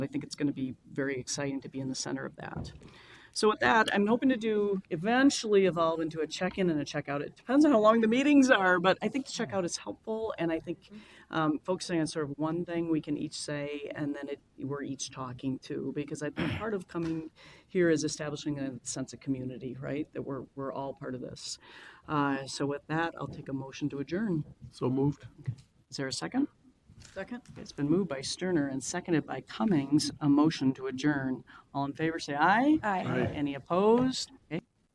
I think it's going to be very exciting to be in the center of that. So with that, I'm hoping to do eventually evolve into a check-in and a check-out. It depends on how long the meetings are, but I think the check-out is helpful, and I think um, focusing on sort of one thing we can each say, and then it, we're each talking to, because I think part of coming here is establishing a sense of community, right? That we're we're all part of this. Uh, so with that, I'll take a motion to adjourn. So moved. Is there a second? Second? It's been moved by Sterner and seconded by Cummings, a motion to adjourn. All in favor, say aye. Aye. Aye. Any opposed? Okay.